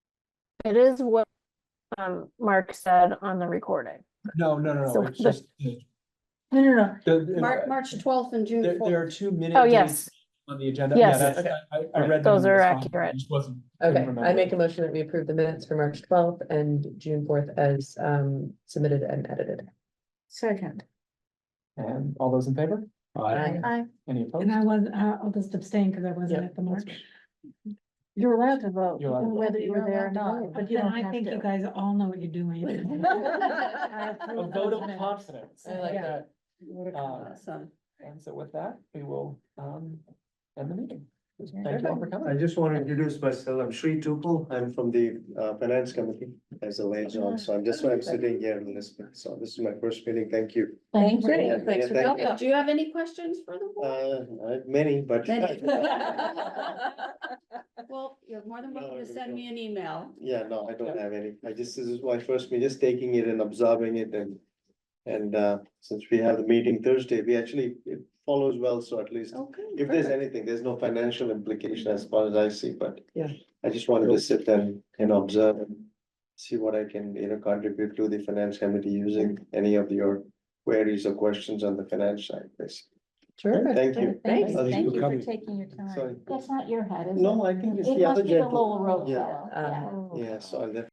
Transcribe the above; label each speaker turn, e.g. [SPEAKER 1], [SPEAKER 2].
[SPEAKER 1] It is what um Mark said on the recording.
[SPEAKER 2] No, no, no,
[SPEAKER 1] So
[SPEAKER 2] no, it's
[SPEAKER 1] the-
[SPEAKER 2] just. the-
[SPEAKER 3] No, no, no,
[SPEAKER 2] the-
[SPEAKER 3] March, March twelfth and June
[SPEAKER 2] There, there
[SPEAKER 3] fourth.
[SPEAKER 2] are two minute.
[SPEAKER 1] Oh,
[SPEAKER 2] dates
[SPEAKER 1] yes,
[SPEAKER 2] On the agenda.
[SPEAKER 1] Yes.
[SPEAKER 2] Yeah, that's- I, I I read.
[SPEAKER 1] Those
[SPEAKER 2] them in
[SPEAKER 1] are
[SPEAKER 2] response.
[SPEAKER 1] accurate.
[SPEAKER 2] I just wasn't- couldn't
[SPEAKER 4] Okay, I
[SPEAKER 2] remember.
[SPEAKER 4] make a motion that we approve the minutes for March twelfth and June fourth as um submitted and edited.
[SPEAKER 3] Second.
[SPEAKER 2] And all those in favor?
[SPEAKER 4] Aye.
[SPEAKER 3] I,
[SPEAKER 2] Any
[SPEAKER 5] And
[SPEAKER 2] opposed?
[SPEAKER 5] I was, uh, I'll just abstain because I wasn't
[SPEAKER 4] Yeah,
[SPEAKER 5] at the March.
[SPEAKER 3] you're allowed to vote,
[SPEAKER 2] You're allowed to
[SPEAKER 3] whether you were there or
[SPEAKER 5] You're allowed to
[SPEAKER 3] not,
[SPEAKER 5] vote.
[SPEAKER 3] but you
[SPEAKER 5] And
[SPEAKER 3] don't
[SPEAKER 5] I
[SPEAKER 3] have
[SPEAKER 5] think you
[SPEAKER 3] to.
[SPEAKER 5] guys all know what you're doing. I
[SPEAKER 2] A vote
[SPEAKER 5] approve those
[SPEAKER 2] of
[SPEAKER 5] minutes.
[SPEAKER 2] confidence.
[SPEAKER 4] I like
[SPEAKER 2] Yeah.
[SPEAKER 4] that.
[SPEAKER 2] Uh,
[SPEAKER 3] Awesome.
[SPEAKER 2] And so with that, we will um end the meeting. Thank you all for
[SPEAKER 3] Perfect.
[SPEAKER 6] I
[SPEAKER 2] coming.
[SPEAKER 6] just want to introduce myself. I'm Sri Tupul. I'm from the uh, Finance Committee as a liaison, so I'm just, I'm sitting here in this, so this is my first meeting. Thank you.
[SPEAKER 3] Thank
[SPEAKER 6] Great.
[SPEAKER 3] you.
[SPEAKER 6] Thanks for coming.
[SPEAKER 3] Do you have any questions for the board?
[SPEAKER 6] Uh, I have many, but
[SPEAKER 3] Many. Well, you're more than welcome
[SPEAKER 6] No,
[SPEAKER 3] to
[SPEAKER 6] we
[SPEAKER 3] send
[SPEAKER 6] don't.
[SPEAKER 3] me an email.
[SPEAKER 6] yeah, no, I don't have any. I just, this is my first meeting, just taking it and observing it and and uh, since we have the meeting Thursday, we actually, it follows well, so at least
[SPEAKER 3] Okay.
[SPEAKER 6] if there's anything, there's no financial implication as far as I see, but
[SPEAKER 4] Yeah.
[SPEAKER 6] I just wanted to sit and, and observe and see what I can, you know, contribute to the finance committee using any of your queries or questions on the finance side, basically.
[SPEAKER 4] Terrific.
[SPEAKER 6] Thank you.
[SPEAKER 4] Thanks.
[SPEAKER 6] Others
[SPEAKER 7] Thank
[SPEAKER 6] will
[SPEAKER 7] you for
[SPEAKER 6] come.
[SPEAKER 7] taking your
[SPEAKER 6] Sorry.
[SPEAKER 7] time. That's not your head, is it?
[SPEAKER 6] No, I think it's
[SPEAKER 7] It
[SPEAKER 6] the
[SPEAKER 7] must
[SPEAKER 6] other
[SPEAKER 7] be the
[SPEAKER 6] gentleman.
[SPEAKER 7] Lowell Road
[SPEAKER 6] Yeah.
[SPEAKER 7] fellow, yeah.
[SPEAKER 4] Um,
[SPEAKER 6] Yeah, so I'll